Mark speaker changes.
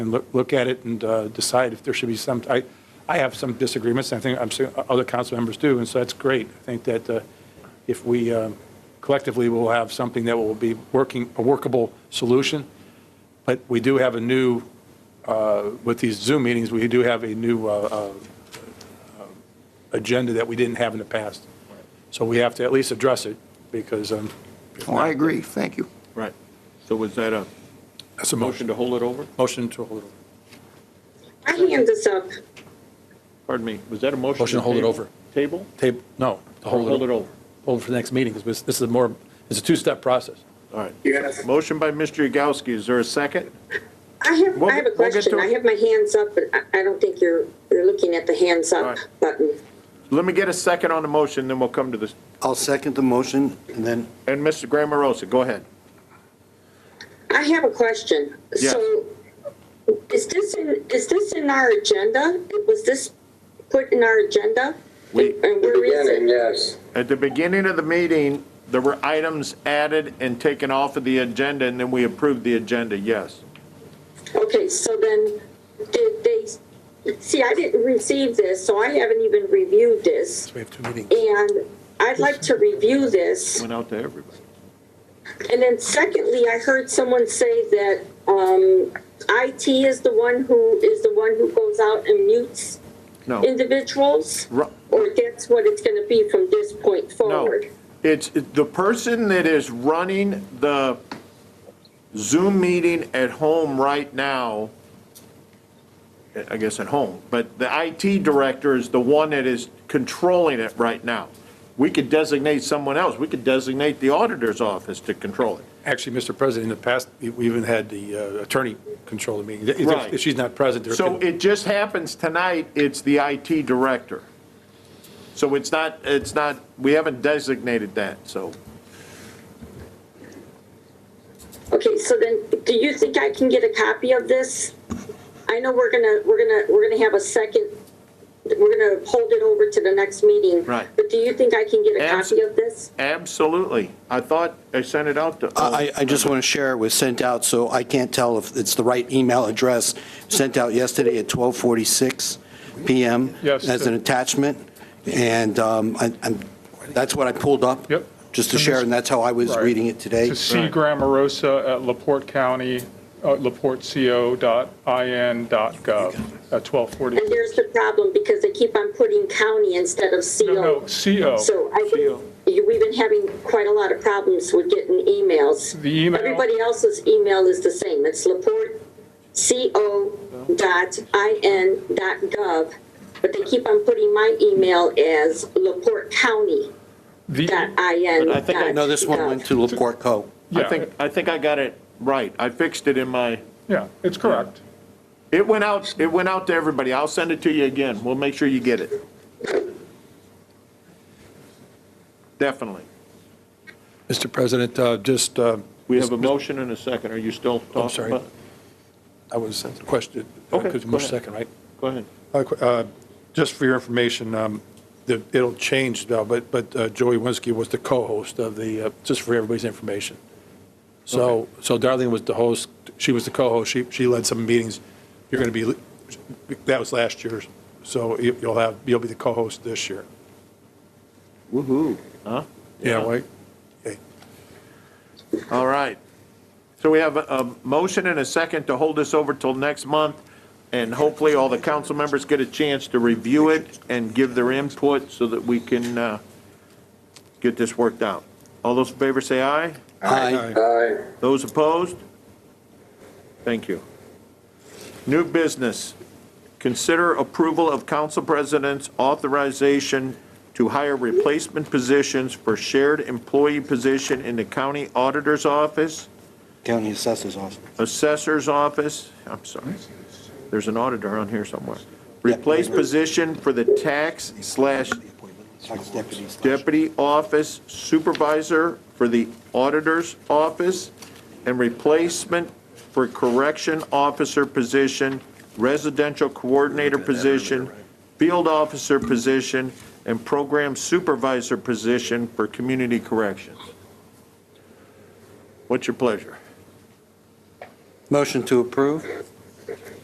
Speaker 1: and look, look at it and uh, decide if there should be some, I, I have some disagreements, and I think I'm sure other council members do, and so that's great. I think that uh, if we um, collectively will have something that will be working, a workable solution, but we do have a new, uh, with these Zoom meetings, we do have a new uh, uh, agenda that we didn't have in the past. So we have to at least address it, because um,
Speaker 2: Oh, I agree, thank you.
Speaker 3: Right. So was that a
Speaker 1: that's a motion,
Speaker 3: motion to hold it over?
Speaker 1: motion to hold it over.
Speaker 4: My hand is up.
Speaker 3: Pardon me, was that a motion?
Speaker 1: Motion to hold it
Speaker 3: table-
Speaker 1: over.
Speaker 3: Table?
Speaker 1: Table, no, to
Speaker 3: Or Hold it over.
Speaker 1: hold it for the next meeting, because this is more, it's a two-step process.
Speaker 3: All right. Motion by Mr. Yagowski, is there a second?
Speaker 4: I have,
Speaker 3: We'll
Speaker 4: I have a
Speaker 3: get- we'll get
Speaker 4: question.
Speaker 3: to
Speaker 4: I
Speaker 3: it.
Speaker 4: have my hands up, but I, I don't think you're, you're looking at the hands
Speaker 3: All
Speaker 4: up
Speaker 3: right.
Speaker 4: button.
Speaker 3: Let me get a second on the motion, then we'll come to this.
Speaker 5: I'll second the motion, and then
Speaker 3: And Mr. Grammerosa, go ahead.
Speaker 4: I have a question.
Speaker 3: Yes.
Speaker 4: So is this in, is this in our agenda? Was this put in our agenda?
Speaker 3: We-
Speaker 4: And where is
Speaker 6: Beginning,
Speaker 4: it?
Speaker 6: yes.
Speaker 3: At the beginning of the meeting, there were items added and taken off of the agenda, and then we approved the agenda, yes.
Speaker 4: Okay, so then did they, see, I didn't receive this, so I haven't even reviewed this.
Speaker 1: We have two meetings.
Speaker 4: And I'd like to review this.
Speaker 3: Went out to everybody.
Speaker 4: And then secondly, I heard someone say that um, IT is the one who, is the one who goes out and mutes
Speaker 3: No.
Speaker 4: individuals?
Speaker 3: Ru-
Speaker 4: Or that's what it's going to be from this point
Speaker 3: No,
Speaker 4: forward?
Speaker 3: it's, it- the person that is running the Zoom meeting at home right now, I guess at home, but the IT director is the one that is controlling it right now. We could designate someone else, we could designate the auditor's office to control it.
Speaker 1: Actually, Mr. President, in the past, we we even had the uh, attorney control the meeting. If- If
Speaker 3: Right.
Speaker 1: she's not present, there.
Speaker 3: So it just happens tonight, it's the IT director. So it's not, it's not, we haven't designated that, so.
Speaker 4: Okay, so then, do you think I can get a copy of this? I know we're gonna, we're gonna, we're gonna have a second, we're gonna hold it over to the next meeting.
Speaker 3: Right.
Speaker 4: But do you think I can get a
Speaker 3: Abs-
Speaker 4: copy of this?
Speaker 3: Absolutely. I thought I sent it out to.
Speaker 5: I, I I just want to share, it was sent out, so I can't tell if it's the right email address, sent out yesterday at 12:46 PM
Speaker 1: Yes.
Speaker 5: as an attachment, and um, I- I'm, that's what I pulled up.
Speaker 7: Yep.
Speaker 5: Just to share, and that's how I was
Speaker 7: Right.
Speaker 5: reading it today.
Speaker 7: To C. Grammarosa at LaPorte County, uh, laporteco.in.gov at 1240.
Speaker 4: And there's the problem, because they keep on putting county instead of CO.
Speaker 7: No, no, CO.
Speaker 4: So I think you- we've been having quite a lot of problems with getting emails.
Speaker 7: The email-
Speaker 4: Everybody else's email is the same. It's laporteco.in.gov, but they keep on putting my email as laportecounty.in.
Speaker 7: The-
Speaker 3: But I think I
Speaker 5: No, this one went to LaPorte Co.
Speaker 3: I
Speaker 7: yeah,
Speaker 3: think, I think I got it right. I fixed it in my,
Speaker 7: Yeah, it's correct.
Speaker 3: it went out, it went out to everybody. I'll send it to you again. We'll make sure you get it. Definitely.
Speaker 1: Mr. President, uh, just, uh,
Speaker 3: We have a motion and a second. Are you still
Speaker 1: I'm
Speaker 3: talking
Speaker 1: sorry.
Speaker 3: about?
Speaker 1: I was questioned,
Speaker 3: Okay,
Speaker 1: because
Speaker 3: go
Speaker 1: March
Speaker 3: ahead.
Speaker 1: second, right?
Speaker 3: Go ahead.
Speaker 1: Uh, qu- uh, Just for your information, um, the- it'll change, though, but but uh, Joey Winsky was the co-host of the, uh, just for everybody's information. So so Darlene was the host, she was the co-host, she she led some meetings. You're going to be, that was last year, so you- you'll have, you'll be the co-host this year.
Speaker 2: Woo-hoo.
Speaker 3: Huh?
Speaker 1: Yeah, right? Okay.
Speaker 3: All right. So we have a, a motion and a second to hold this over till next month, and hopefully all the council members get a chance to review it and give their input so that we can, uh, get this worked out. All those in favor say aye.
Speaker 5: Aye.
Speaker 6: Aye.
Speaker 3: Those opposed? Thank you. New business, consider approval of council president's authorization to hire replacement positions for shared employee position in the county auditor's office,
Speaker 5: County Assessor's Office.
Speaker 3: assessor's office, I'm sorry, there's an auditor on here somewhere. Replace position for the tax slash
Speaker 5: Tax deputies.
Speaker 3: deputy office supervisor for the auditor's office and replacement for correction officer position, residential coordinator position, field officer position, and program supervisor position for community corrections. What's your pleasure?
Speaker 5: Motion to approve?